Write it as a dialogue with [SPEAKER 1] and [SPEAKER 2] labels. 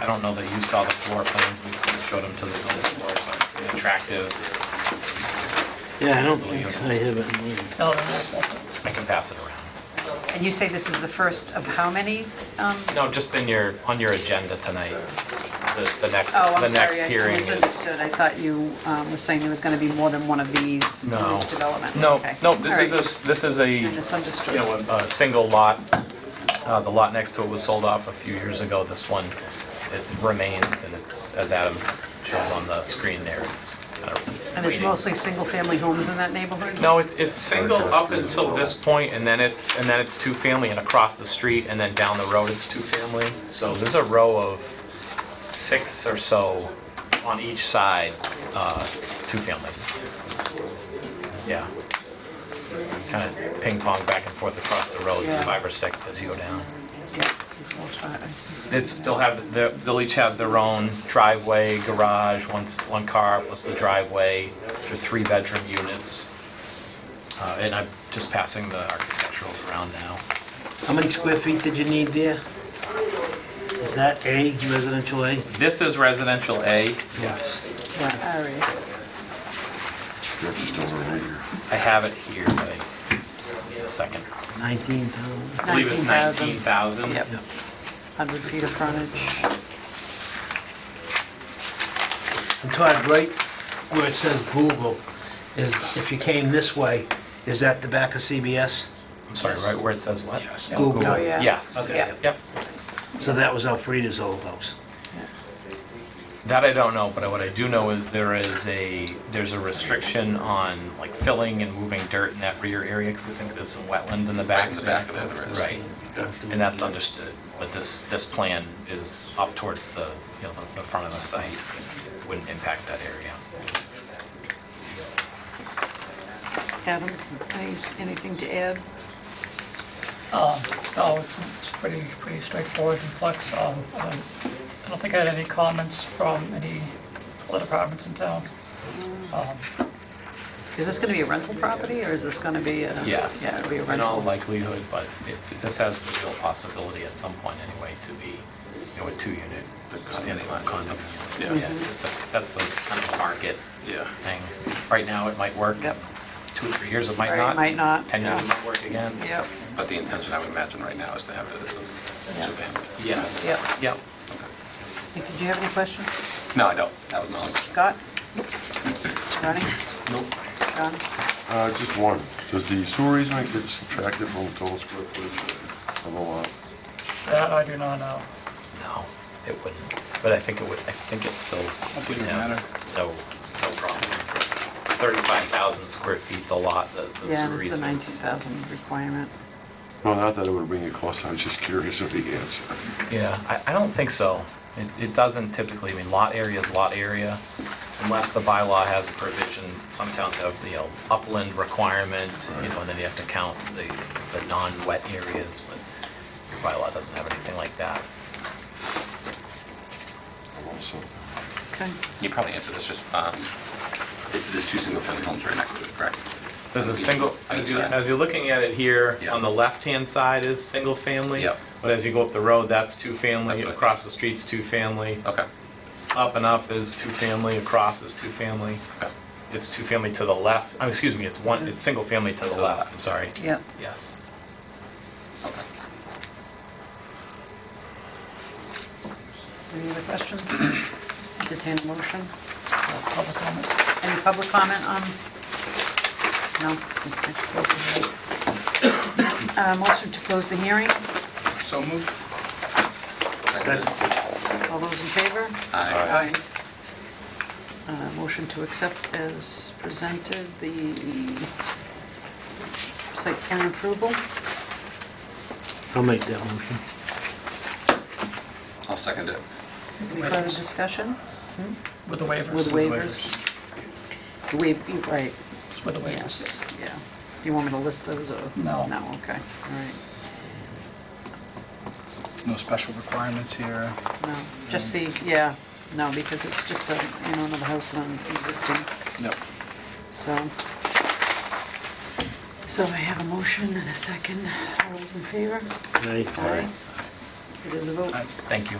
[SPEAKER 1] I don't know that you saw the floor plans, we showed them to the zoning board, but it's an attractive,
[SPEAKER 2] Yeah, I don't think I have it. in there.
[SPEAKER 3] Oh,
[SPEAKER 4] No, no, no, that's-
[SPEAKER 1] I can pass it around.
[SPEAKER 3] And you say this is the first of how many? um,
[SPEAKER 1] No, just in your, on your agenda tonight, the- the next,
[SPEAKER 3] Oh,
[SPEAKER 1] the
[SPEAKER 3] I'm
[SPEAKER 1] next
[SPEAKER 3] sorry, I
[SPEAKER 1] hearing is...
[SPEAKER 3] misunderstood. I thought you um, were saying there was going to be more than one of these in
[SPEAKER 1] No.
[SPEAKER 3] this development.
[SPEAKER 1] No,
[SPEAKER 3] Okay.
[SPEAKER 1] no, this
[SPEAKER 3] All
[SPEAKER 1] is
[SPEAKER 3] right.
[SPEAKER 1] a, this is a,
[SPEAKER 3] I
[SPEAKER 1] you
[SPEAKER 3] misunderstood.
[SPEAKER 1] know, a a single lot. Uh, The lot next to it was sold off a few years ago. This one, it remains, and it's, as Adam shows on the screen there, it's kind of
[SPEAKER 3] And it's
[SPEAKER 1] waiting.
[SPEAKER 3] mostly single-family homes in that neighborhood?
[SPEAKER 1] No, it's, it's single up until this point, and then it's, and then it's two-family, and across the street, and then down the road, it's two-family. So there's a row of six or so on each side, uh, two families. Yeah. Kind of ping-pong back and forth across the road, there's
[SPEAKER 3] Yeah.
[SPEAKER 1] five or six as you go down.
[SPEAKER 3] Yeah. Before five, I see.
[SPEAKER 1] It's, they'll have, their- they'll each have their own driveway, garage, one, s- one car plus the driveway, they're three-bedroom units. Uh, And I'm just passing the architectural around now.
[SPEAKER 2] How many square feet did you need there? Is that A, residential A?
[SPEAKER 1] This is residential A. Yes.
[SPEAKER 3] All right.
[SPEAKER 5] Just over here.
[SPEAKER 1] I have it here, but I just need a second.
[SPEAKER 2] 19,000?
[SPEAKER 1] I believe it's 19,000.
[SPEAKER 3] Yep,
[SPEAKER 2] Yeah.
[SPEAKER 3] 100 feet of frontage.
[SPEAKER 2] And Todd, right where it says Google, is, if you came this way, is that the back of CBS?
[SPEAKER 1] I'm sorry, right where it says what? Yes.
[SPEAKER 2] Google.
[SPEAKER 3] Oh, yeah.
[SPEAKER 1] Yes.
[SPEAKER 3] Yeah.
[SPEAKER 1] Yep.
[SPEAKER 2] So that was Elfrida's old house.
[SPEAKER 1] That I don't know, but what I do know is there is a, there's a restriction on like filling and moving dirt in that rear area, because I think there's some wetland in the back.
[SPEAKER 5] In the back of that, there is.
[SPEAKER 1] Right, and that's understood, but this, this plan is up towards the, you know, the- the front of the site, wouldn't impact that area.
[SPEAKER 3] Adam, any- anything to add?
[SPEAKER 4] um, No, it's it's pretty, pretty straightforward and complex. Um, I don't- I don't think I had any comments from any other departments in town. Um,
[SPEAKER 3] Is this going to be a rental property, or is this going to be a...
[SPEAKER 1] Yes,
[SPEAKER 3] Yeah, it'll be a
[SPEAKER 1] in all
[SPEAKER 3] rental.
[SPEAKER 1] likelihood, but it- this has the real possibility at some point anyway to be, you know, a two-unit standalone condo.
[SPEAKER 5] Yeah.
[SPEAKER 1] Yeah, just, a- that's a kind of a market
[SPEAKER 5] Yeah.
[SPEAKER 1] thing. Right now, it might work.
[SPEAKER 3] Yep.
[SPEAKER 1] Two or three years, it might
[SPEAKER 3] Right,
[SPEAKER 1] not.
[SPEAKER 3] might not,
[SPEAKER 1] Ten years,
[SPEAKER 3] yeah.
[SPEAKER 1] it might work again.
[SPEAKER 3] Yep,
[SPEAKER 5] But the intention, I would imagine, right now is to have it as a
[SPEAKER 3] Yeah.
[SPEAKER 5] two-family.
[SPEAKER 1] Yes.
[SPEAKER 3] yep.
[SPEAKER 1] Yep.
[SPEAKER 3] Did you have any questions?
[SPEAKER 5] No, I don't. That was my.
[SPEAKER 3] Scott? Ronnie?
[SPEAKER 5] Nope.
[SPEAKER 3] John?
[SPEAKER 6] Uh, just one. Does the sewer easement get subtracted from the total square footage of the lot?
[SPEAKER 4] That I do not know.
[SPEAKER 1] No, it wouldn't. But I think it would, I think it's still. Wouldn't matter. No, no problem. 35,000 square feet, the lot, the the
[SPEAKER 3] Yeah,
[SPEAKER 1] sewer
[SPEAKER 3] it's a
[SPEAKER 1] easements.
[SPEAKER 3] 19,000 requirement.
[SPEAKER 6] No, not that it would bring it close, I was just curious of the answer.
[SPEAKER 1] Yeah, I, I don't think so. It, it doesn't typically, I mean, lot area is lot area, unless the bylaw has a provision, some towns have, you know, upland requirement, you know, and then you have to count the, the non-wet areas, but your bylaw doesn't have anything like that.
[SPEAKER 6] Also,
[SPEAKER 3] Okay.
[SPEAKER 5] You probably answered this, just, um, th- there's two single-family homes right next to it, correct?
[SPEAKER 1] There's a single, as you, as you're looking at it here, on the left-hand side is single-family.
[SPEAKER 5] Yep.
[SPEAKER 1] But as you go up the road, that's two-family,
[SPEAKER 5] That's what I-
[SPEAKER 1] across the street's two-family,
[SPEAKER 5] Okay.
[SPEAKER 1] up and up is two-family, across is two-family.
[SPEAKER 5] Okay.
[SPEAKER 1] It's two-family to the left, oh, excuse me, it's one, it's single-family to the
[SPEAKER 5] the
[SPEAKER 1] left,
[SPEAKER 5] left.
[SPEAKER 1] I'm sorry.
[SPEAKER 3] Yep.
[SPEAKER 1] Yes.
[SPEAKER 5] Okay.
[SPEAKER 3] Any other questions? Entertain a motion?
[SPEAKER 4] Public comment?
[SPEAKER 3] Any public comment on? No? Okay. Close the hearing. Uh, Motion to close the hearing.
[SPEAKER 5] So moved.
[SPEAKER 3] All those in favor?
[SPEAKER 5] Aye.
[SPEAKER 3] Uh, Motion to accept as presented the site plan approval.
[SPEAKER 2] I'll make that motion.
[SPEAKER 5] I'll second it.
[SPEAKER 3] Any further discussion
[SPEAKER 4] With the waivers?
[SPEAKER 3] with waivers? Waive, right,
[SPEAKER 4] With the waivers.
[SPEAKER 3] yes, yeah. Do you want me to list those or?
[SPEAKER 4] No.
[SPEAKER 3] No, okay, all right.
[SPEAKER 7] no special requirements here.
[SPEAKER 3] No, just the, yeah, no, because it's just a, you know, another house on existing,
[SPEAKER 7] Yep.
[SPEAKER 3] so. So I have a motion and a second. All those in favor?
[SPEAKER 2] Aye.
[SPEAKER 3] It is a vote.
[SPEAKER 1] Thank you.